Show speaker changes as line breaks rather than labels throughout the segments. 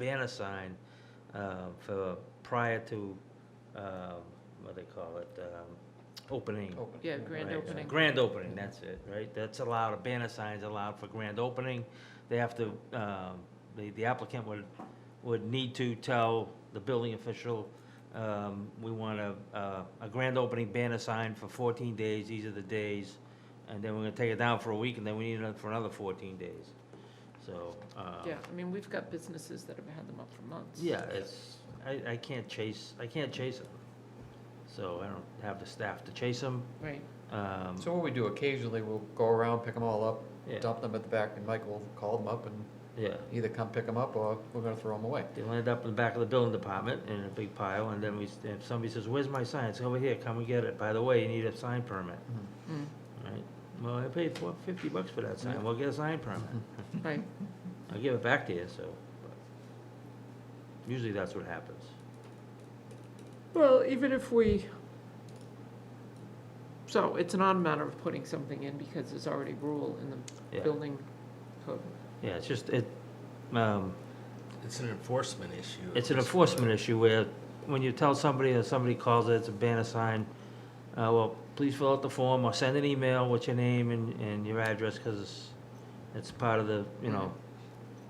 banner sign uh, for, prior to, um, what they call it, um, opening.
Open.
Yeah, Oh, grand
Right,
opening.
Grand opening, that's it, right? That's allowed, a banner sign's allowed for grand opening. They have to, um, the the applicant would, would need to tell the building official, um, we want a, a- a grand opening banner sign for 14 days, these are the days, and then we're gonna take it down for a week, and then we need it for another 14 days. So, uh,
Yeah, I mean, we've got businesses that have had them up for months.
yeah, it's, I, I can't chase, I can't chase them. So I don't have the staff to chase them.
Right,
Um,
So what we do occasionally, we'll go around, pick them all up,
Yeah.
dump them at the back, and Mike will call them up and
Yeah.
either come pick them up or we're gonna throw them away.
They'll end up in the back of the building department in a big pile, and then we, if somebody says, where's my sign? It's over here, come and get it. By the way, you need a sign permit,
mm,
right? Well, I paid four, fifty bucks for that sign, well, get a sign permit.
right,
I'll give it back to you, so. but Usually that's what happens.
well, even if we, so it's not a matter of putting something in because there's already rule in the
Yeah,
building code.
yeah, it's just, it, um,
It's an enforcement issue.
It's an enforcement issue where, when you tell somebody or somebody calls it, it's a banner sign, uh, well, please fill out the form or send an email with your name and, and your address, cause it's, it's part of the, you know,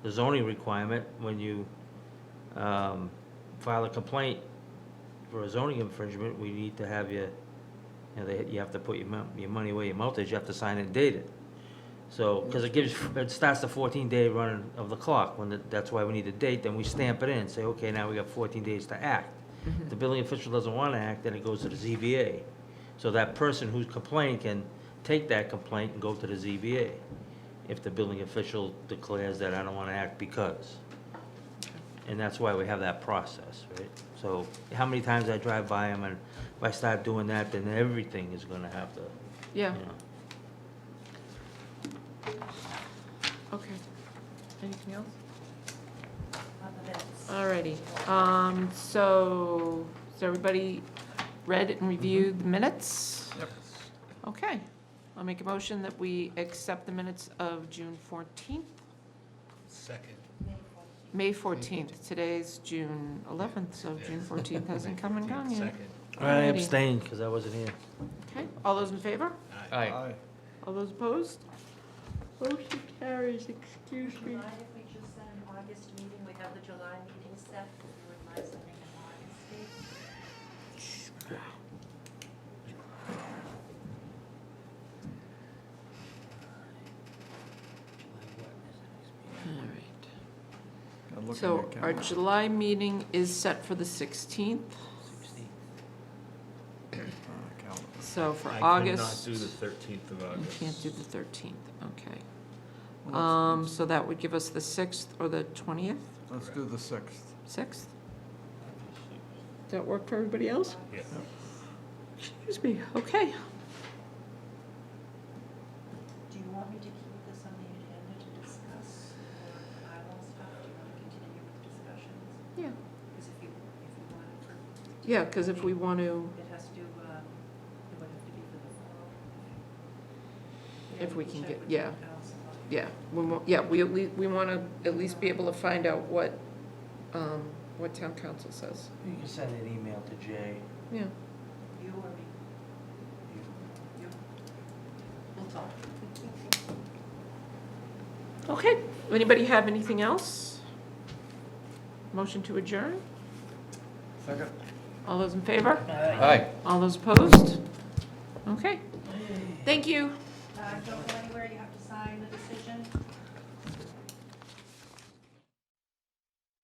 the zoning requirement when you, um, file a complaint for a zoning infringement, we need to have your, you know, they, you have to put your mo- your money where your mouth is, you have to sign it and date it. So, because it gives, it starts the fourteen day run of the clock, when, the- that's why we need a date, then we stamp it in, say, okay, now we got fourteen days to act.
Mm-hmm.
If The building official doesn't wanna act, then it goes to the ZBA. So that person who's complained can take that complaint and go to the ZBA, if the building official declares that I don't wanna act because. And that's why we have that process, right? So how many times I drive by them, and if I start doing that, then everything is gonna have to, you
Yeah,
know.
okay. Anything else?
Other than-
Alrighty, um, so, has everybody read and reviewed the minutes?
Yep.
Mm-hmm.
Okay, I'll make a motion that we accept the minutes of June fourteenth,
Second.
May fourteenth. Today's June eleventh, so June fourteenth hasn't come and gone yet.
Second.
I
Alrighty.
abstained, because I wasn't here.
Okay, all those in favor?
Aye.
Aye.
All those opposed? Motion carries, excuse
Do you mind if we just set an August meeting, we have the July meeting set, if you would mind setting an August date?
Alright,
I'm looking
so
at
our
Kevin.
July meeting is set for the sixteenth,
Uh, calendar.
so for
I
August.
could not do the 13th of
You
August.
can't do the thirteenth, okay. Um, so that would give us the sixth or the twentieth,
Let's do the sixth.
sixth? Does that work for everybody else?
Yeah.
Excuse me, okay.
Do you want me to keep this on the agenda to discuss, or I will stop, do you want to continue with discussions?
Yeah.
Because if you, if you want it for,
Yeah, because if we want to,
it has to, um, it would have to be for the fall.
If we can
check
get-
with the
yeah.
council.
yeah, we, wa- yeah, we at least, we want to at least be able to find out what, um, what town council says.
You can send an email to Jay.
Yeah,
You or me, you, we'll talk.
okay. Anybody have anything else? Motion to adjourn?
Second.
All those in favor?
Aye.
All those opposed? Okay. Thank you.
Uh, don't go anywhere, you have to sign the decision.